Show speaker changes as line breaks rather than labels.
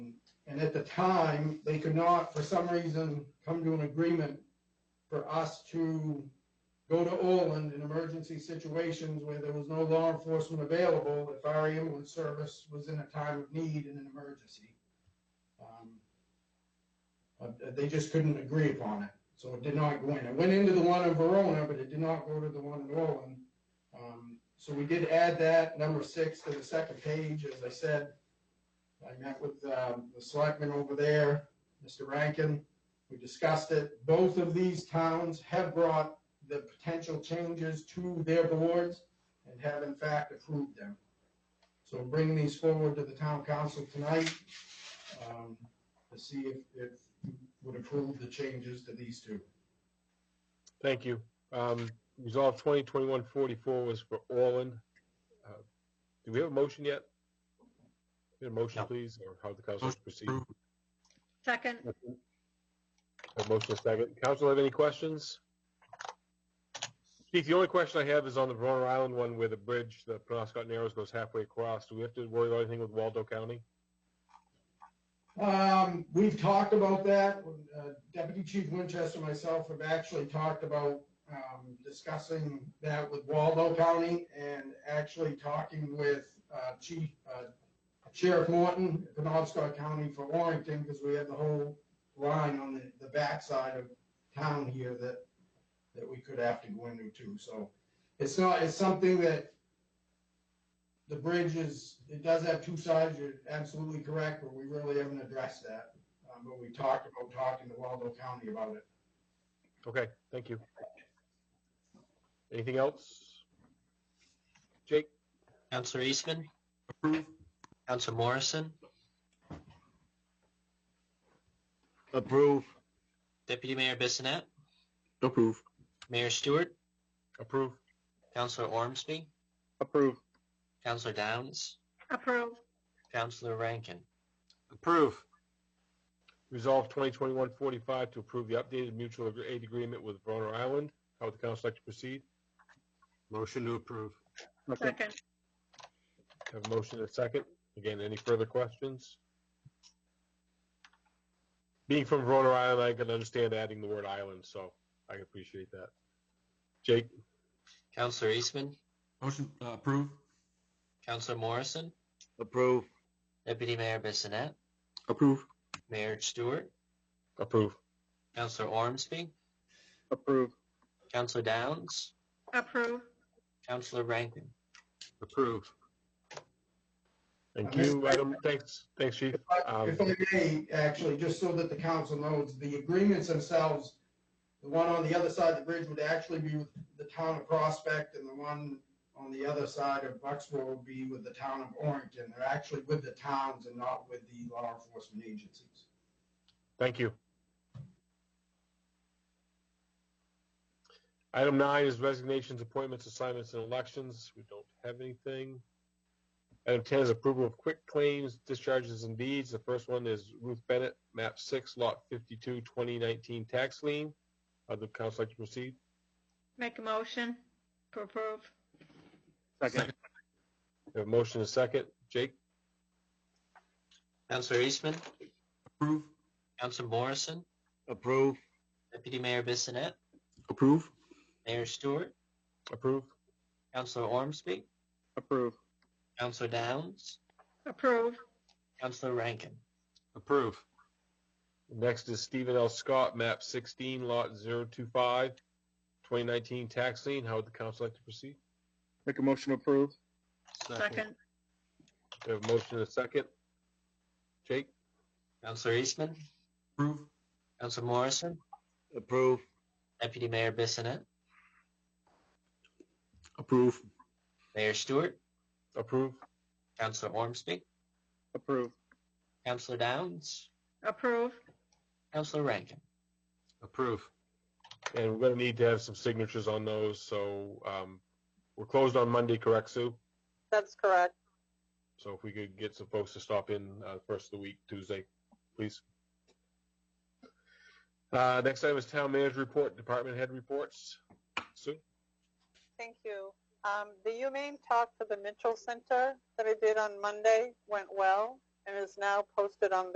And at the time, they could not, for some reason, come to an agreement for us to go to Orland in emergency situations where there was no law enforcement available if our ambulance service was in a time of need in an emergency. Um, But they just couldn't agree upon it, so it did not go in. It went into the one in Verona, but it did not go to the one in Orland. Um, So we did add that, number six, to the second page, as I said. I met with um, the selectman over there, Mr. Rankin. We discussed it. Both of these towns have brought the potential changes to their boards and have in fact approved them. So bring these forward to the town council tonight um, to see if, if you would approve the changes to these two.
Thank you. Um, Resolve twenty twenty-one forty-four was for Orland. Uh, Do we have a motion yet? Need A motion,
No.
please, or how the council
Motion
proceed?
approved.
Second,
A motion is second. Council have any questions? Keith, the only question I have is on the Verona Island one where the bridge, the Penobscot Narrows goes halfway across. Do we have to worry about anything with Waldo County?
Um, we've talked about that. Uh, Deputy Chief Winchester and myself have actually talked about, um, discussing that with Waldo County and actually talking with, uh, Chief, uh, Sheriff Morton, Penobscot County for Orrington, because we have the whole line on the, the backside of town here that, that we could have to go into too. So it's not, it's something that the bridge is, it does have two sides, you're absolutely correct, but we really haven't addressed that. Um, but we talked about talking to Waldo County about it.
Okay, thank you. Anything else? Jake?
Counselor Eastman,
Approve,
Counselor Morrison,
approve,
Deputy Mayor Bissonnette,
approve,
Mayor Stewart,
Approve.
Counselor Ormsby,
approve,
Counselor Downs,
approve,
Counselor Rankin.
approve,
Resolve 2021-45 to approve the updated mutual aid agreement with Verona Island. How would the council like to proceed?
motion to approve.
second,
Have a motion and a second. Again, any further questions? Being from Verona Island, I can understand adding the word island, so I appreciate that. Jake,
Counselor Eastman,
Motion, uh, approve.
Counselor Morrison,
Approve.
Deputy Mayor Bissonnette,
Approve.
Mayor Stewart,
approve.
Counselor Ormsby,
Approve.
Counselor Downs,
approve,
Counselor Rankin.
Approve.
Thank you, Adam. Thanks, thanks, Chief. Um,
If I may, actually, just so that the council knows, the agreements themselves, the one on the other side of the bridge would actually be with the town of Prospect and the one on the other side of Bucksville would be with the town of Orrington. They're actually with the towns and not with the law enforcement agencies.
Thank you. Item nine is resignations, appointments, assignments, and elections. We don't have anything. Item ten is approval of quick claims, discharges, and deeds. The first one is Ruth Bennett, map six, lot 52, 2019 tax lien. Uh, the council like to proceed?
make a motion to approve,
Second.
We have a motion and a second. Jake,
Counselor Eastman,
Approve.
Counselor Morrison,
Approve.
Deputy Mayor Bissonnette,
Approve.
Mayor Stewart,
approve?
Counselor Ormsby,
Approve.
Counselor Downs,
approve,
Counselor Rankin.
Approve.
Next is Stephen L. Scott, map sixteen, lot 025, 2019 tax lien. How would the council like to proceed?
Make a motion to approve.
second,
We have a motion and a second. Jake,
Counselor Eastman,
Approve.
Counselor Morrison,
Approve.
Deputy Mayor Bissonnette,
Approve.
Mayor Stewart,
approve?
Counselor Ormsby,
Approve.
Counselor Downs,
approve,
Counselor Rankin.
Approve.
And we're gonna need to have some signatures on those, so, um, we're closed on Monday, correct, Sue?
That's correct.
So if we could get some folks to stop in, uh, first of the week, Tuesday, please. Uh, next item is town manager report, department head reports. Sue?
Thank you. Um, the UMaine talk to the Mitchell Center that I did on Monday went well and is now posted on